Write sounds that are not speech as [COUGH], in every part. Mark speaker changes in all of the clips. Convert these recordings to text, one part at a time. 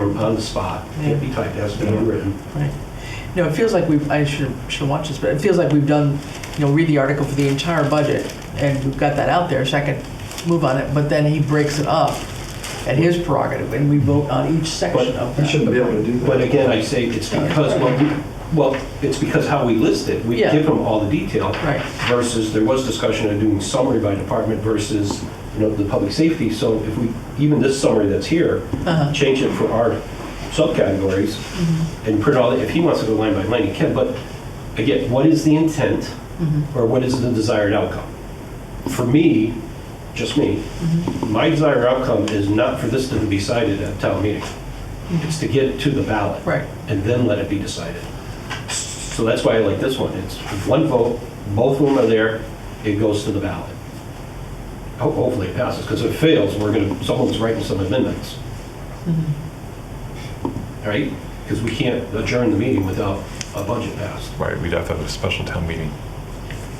Speaker 1: on the spot, can't be typed, has to be written.
Speaker 2: Right. No, it feels like we've, I should, should watch this, but it feels like we've done, you know, read the article for the entire budget, and we've got that out there, so I can move on it, but then he breaks it up at his prerogative, and we vote on each section of
Speaker 3: You
Speaker 2: that.
Speaker 3: shouldn't be able to do that.
Speaker 1: But again, I say it's because, well, we- well, it's because how we list it, we
Speaker 2: Yeah.
Speaker 1: give them all the detail.
Speaker 2: Right.
Speaker 1: Versus, there was discussion of doing summary by department versus, you know, the public safety. So if we, even this summary that's here, [LAUGHS]
Speaker 2: Uh-huh.
Speaker 1: change it for our subcategories and print all, the- if he wants to go line by line, he can. But again, what is the intent or what is the desired outcome? For me, just me, my desired outcome is not for this to be decided at town meeting. It's to get it to the ballot.
Speaker 2: Right.
Speaker 1: And then let it be decided. So that's why I like this one. It's one vote, both of them are there, it goes to the ballot. Ho- Hopefully it passes, because if it fails, we're going to, someone's writing some amendments.
Speaker 3: Mm-hmm.
Speaker 1: All right? Because we can't adjourn the meeting without a budget passed.
Speaker 4: Right, we'd have to have a special town meeting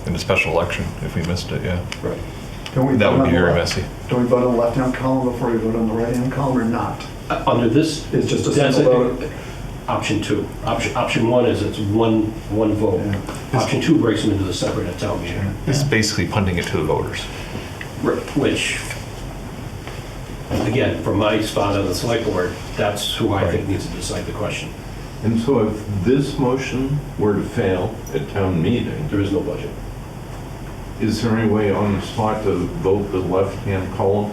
Speaker 4: and a special election if we missed it, yeah.
Speaker 1: Right.
Speaker 3: Can we
Speaker 4: That
Speaker 3: vote
Speaker 4: would
Speaker 3: on
Speaker 4: be
Speaker 3: the
Speaker 4: very
Speaker 3: left-
Speaker 4: messy.
Speaker 3: Do we vote on the left-hand column before we vote on the right-hand column or not?
Speaker 1: Uh, Under this,
Speaker 3: It's just a
Speaker 1: that's
Speaker 3: single
Speaker 1: it. option two. Option, option one is it's one, one vote.
Speaker 3: Yeah.
Speaker 1: Option two breaks them into the separate at town meeting.
Speaker 4: It's basically punting it to the voters.
Speaker 1: Right, Which, again, from my spot on the select board, that's who I think
Speaker 4: Right.
Speaker 1: needs to decide the question.
Speaker 5: And so if this motion were to fail at town meeting,
Speaker 1: There is no budget.
Speaker 5: is there any way on the spot to vote the left-hand column?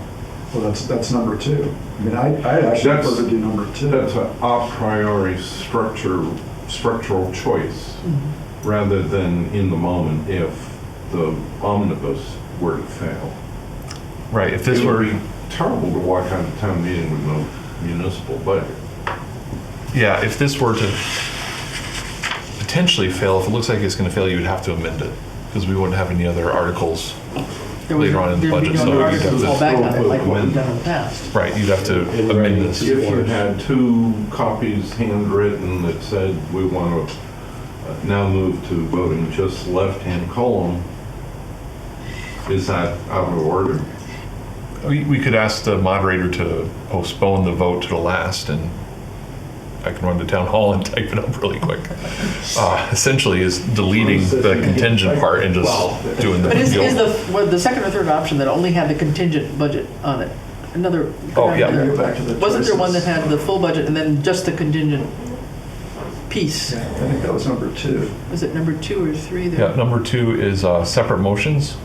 Speaker 3: Well, that's, that's number two. I mean, I, I actually
Speaker 5: That's-
Speaker 3: prefer to do number two.
Speaker 5: That's a a priori structure, structural choice, rather than in the moment if the omnibus were to fail.
Speaker 4: Right, if this
Speaker 5: It would
Speaker 4: were,
Speaker 5: be terrible to walk out of town meeting with no municipal budget.
Speaker 4: yeah, if this were to potentially fail, if it looks like it's going to fail, you would have to amend it because we wouldn't have any other articles.
Speaker 2: There was-
Speaker 4: Later on in the
Speaker 2: there'd be
Speaker 4: budget,
Speaker 2: no
Speaker 4: so we
Speaker 2: article
Speaker 4: could have
Speaker 2: to fall
Speaker 5: this
Speaker 2: back on it,
Speaker 5: little
Speaker 2: like what we've
Speaker 5: amendment.
Speaker 2: done in the past.
Speaker 4: Right, you'd have to
Speaker 1: In writing.
Speaker 4: amend this.
Speaker 5: If you
Speaker 1: Or-
Speaker 5: had two copies handwritten that said, we want to uh, now move to voting just left-hand column, is that out of order?
Speaker 4: We, we could ask the moderator to postpone the vote to the last, and I can run to town hall and [LAUGHS] type it up really quick. Uh, Essentially is deleting the contingent part and just doing the.
Speaker 2: But is, is
Speaker 4: deal.
Speaker 2: the, well, the second or third option that only had the contingent budget on it, another?
Speaker 4: Oh, yeah.
Speaker 3: Can we go back to the
Speaker 2: Wasn't there one that
Speaker 3: choices?
Speaker 2: had the full budget and then just the contingent piece?
Speaker 3: Yeah, I think that was number two.
Speaker 2: Was it number two or three there?
Speaker 4: Yeah, number two is uh, separate motions.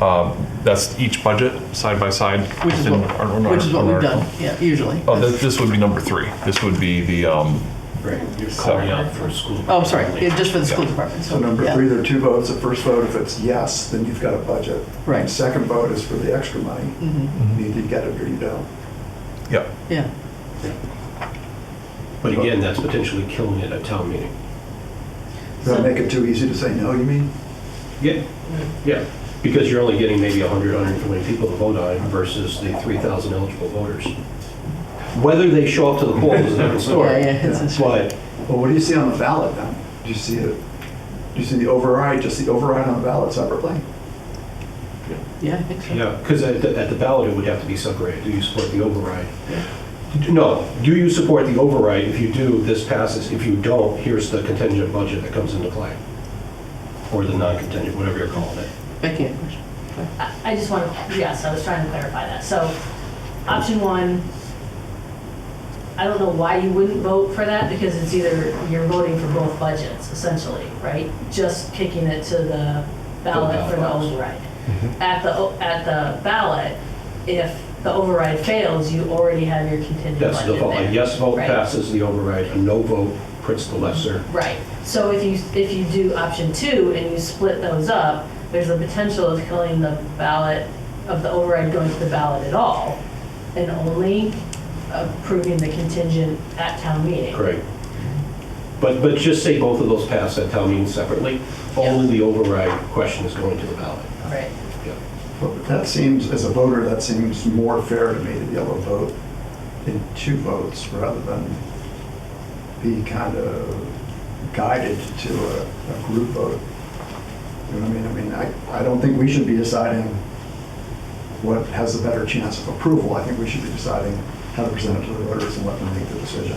Speaker 4: Um, That's each budget, side by side.
Speaker 2: Which is
Speaker 4: in
Speaker 2: what,
Speaker 4: our- our-
Speaker 2: which is what we've
Speaker 4: our article.
Speaker 2: done, yeah, usually.
Speaker 4: Oh, this, this would be number three. This would be the, um,
Speaker 1: Right. You're
Speaker 4: Sorry.
Speaker 1: calling out for a school.
Speaker 2: Oh, I'm sorry, yeah, just for the school
Speaker 4: Yeah.
Speaker 2: department.
Speaker 3: So number
Speaker 2: yeah.
Speaker 3: three, there are two votes. The first vote, if it's yes, then you've got a budget.
Speaker 2: Right.
Speaker 3: The second vote is for the extra money.
Speaker 2: Mhm,
Speaker 4: Mm-hmm.
Speaker 3: You either get it or you don't.
Speaker 4: yeah,
Speaker 2: Yeah,
Speaker 1: But again, that's potentially killing it at town meeting.
Speaker 3: Does that make it too easy to say no, you mean?
Speaker 1: Yeah, yeah, because you're only getting maybe 100, 120 people to vote on versus the 3,000 eligible voters. Whether they show up to the polls is a different
Speaker 2: yeah,
Speaker 1: story.
Speaker 2: yeah. it's- it's-
Speaker 1: But
Speaker 3: Well, what do you see on the ballot then? Do you see it, do you see the override, just the override on the ballot separately?
Speaker 2: Yeah, I think so.
Speaker 1: Yeah, because at the at the ballot, it would have to be separated. Do you support the override? No, do you support the override? If you do, this passes. If you don't, here's the contingent budget that comes into play. Or the non-contingent, whatever you're calling it.
Speaker 2: Becky had a question.
Speaker 6: I I just want, yes, I was trying to clarify that. So, option one, I don't know why you wouldn't vote for that, because it's either, you're voting for both budgets essentially, right? Just kicking it to the ballot for the
Speaker 1: box.
Speaker 6: override. At the, o- at the ballot, if the override fails, you already have your contingent budget
Speaker 1: That's the vote.
Speaker 6: there.
Speaker 1: A yes vote
Speaker 6: Right.
Speaker 1: passes the override, a no vote prints the lesser.
Speaker 6: Right, so if you, if you do option two and you split those up, there's the potential of killing the ballot, of the override going to the ballot at all, and only approving the contingent at town meeting.
Speaker 1: Correct. But, but just say both of those pass at town meeting separately. Only the override question is going to the ballot.
Speaker 6: Right,
Speaker 1: Yeah.
Speaker 3: But That seems, as a voter, that seems more fair to me to be able to vote in two votes rather than be kind of guided to a, a group vote. You know what I mean? I mean, I, I don't think we should be deciding what has a better chance of approval. I think we should be deciding how to present it to the voters and let them make the decision.